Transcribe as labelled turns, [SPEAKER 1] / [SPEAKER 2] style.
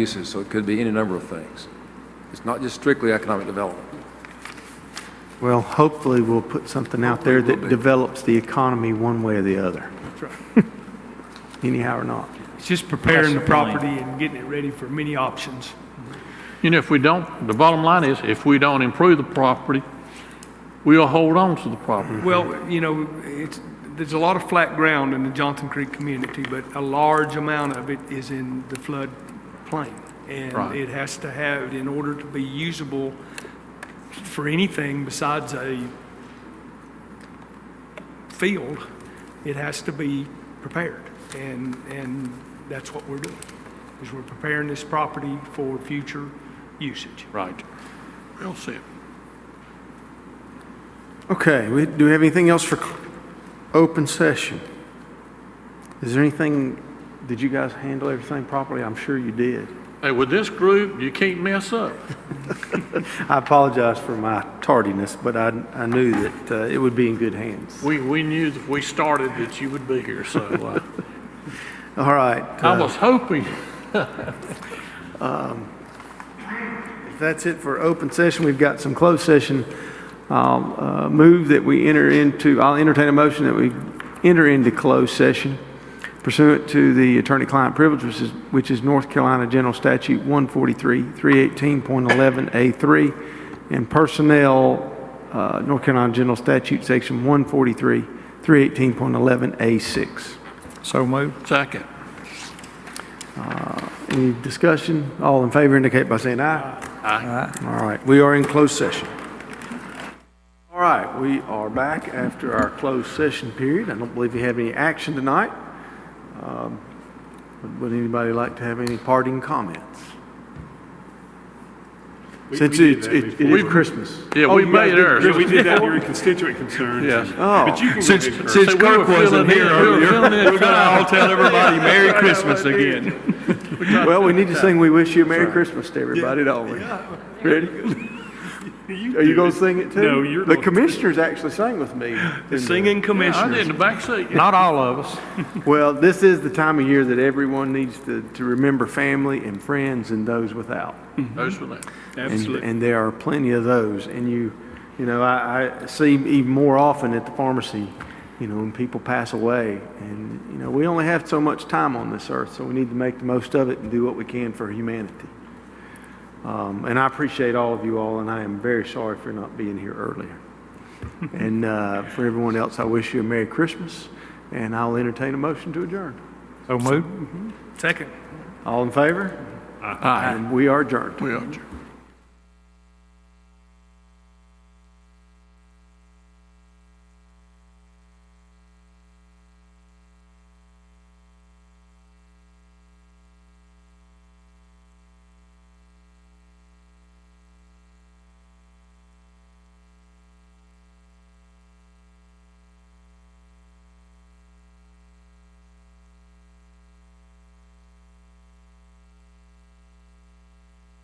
[SPEAKER 1] uses, so it could be any number of things. It's not just strictly economic development.
[SPEAKER 2] Well, hopefully, we'll put something out there
[SPEAKER 1] Hopefully, we'll
[SPEAKER 2] that
[SPEAKER 1] be.
[SPEAKER 2] develops the economy one way or the other. Anyhow or not.
[SPEAKER 3] It's just preparing the
[SPEAKER 4] That's the plan.
[SPEAKER 3] property and getting it ready for many options.
[SPEAKER 5] You know, if we don't, the bottom line is, if we don't improve the property, we'll hold on to the property.
[SPEAKER 3] Well, you know, it's, there's a lot of flat ground in the Johnson Creek community, but a large amount of it is in the flood plain. And
[SPEAKER 5] Right.
[SPEAKER 3] it has to have, in order to be usable for anything besides a field, it has to be prepared. And, and that's what we're doing, is we're preparing this property for future usage.
[SPEAKER 5] Right. Well said.
[SPEAKER 2] Okay, we, do we have anything else for cl- open session? Is there anything, did you guys handle everything properly? I'm sure you did.
[SPEAKER 5] Hey, with this group, you can't mess up.
[SPEAKER 2] I apologize for my tardiness, but I, I knew that uh, it would be in good hands.
[SPEAKER 5] We, we knew that we started that you would be here, so uh,
[SPEAKER 2] All right. uh,
[SPEAKER 5] I
[SPEAKER 4] Uh,
[SPEAKER 5] was hoping.
[SPEAKER 2] If that's it for open session, we've got some closed session. I'll uh, move that we enter into, I'll entertain a motion that we enter into closed session pursuant to the attorney-client privilege, which is, which is North Carolina General Statute 143, 318.11A3, and personnel, uh, North Carolina General Statute, Section 143, 318.11A6.
[SPEAKER 4] So moved.
[SPEAKER 5] Second.
[SPEAKER 2] Any discussion? All in favor indicate by saying aye. Aye. All right, we are in closed session. All right, we are back after our closed session period. I don't believe we have any action tonight. Um, Would would anybody like to have any parting comments? Since it's, it it is
[SPEAKER 5] before.
[SPEAKER 2] Christmas.
[SPEAKER 5] Yeah,
[SPEAKER 2] Oh,
[SPEAKER 5] we
[SPEAKER 2] you guys
[SPEAKER 5] made
[SPEAKER 2] did-
[SPEAKER 5] ours.
[SPEAKER 6] Yeah, we did that, your constituent concerns.
[SPEAKER 5] Yes.
[SPEAKER 6] But you can.
[SPEAKER 4] Since,
[SPEAKER 6] go ahead, Kurt.
[SPEAKER 4] since
[SPEAKER 5] So we were
[SPEAKER 4] Kirk wasn't here
[SPEAKER 5] feeling it, we were
[SPEAKER 4] earlier,
[SPEAKER 5] feeling it.
[SPEAKER 4] we're gonna all tell everybody Merry Christmas again.
[SPEAKER 2] Well, we need to sing "We Wish You a Merry Christmas" to everybody, don't we? Ready? Are you going to sing it too?
[SPEAKER 6] No, you're
[SPEAKER 2] The
[SPEAKER 6] gonna-
[SPEAKER 2] commissioners actually sang with me.
[SPEAKER 3] The singing
[SPEAKER 5] I did in
[SPEAKER 3] commissioners.
[SPEAKER 5] the back seat.
[SPEAKER 4] Not all of us.
[SPEAKER 2] Well, this is the time of year that everyone needs to, to remember family and friends and those without.
[SPEAKER 5] Those were that.
[SPEAKER 2] And-
[SPEAKER 6] Absolutely.
[SPEAKER 2] And there are plenty of those. And you, you know, I, I see even more often at the pharmacy, you know, when people pass away. And, you know, we only have so much time on this earth, so we need to make the most of it and do what we can for humanity. Um, and I appreciate all of you all, and I am very sorry for not being here earlier. and uh, for everyone else, I wish you a Merry Christmas, and I'll entertain a motion to adjourn.
[SPEAKER 4] So moved.
[SPEAKER 3] Second.
[SPEAKER 2] All in favor? Aye. And we are adjourned.
[SPEAKER 5] We are adjourned.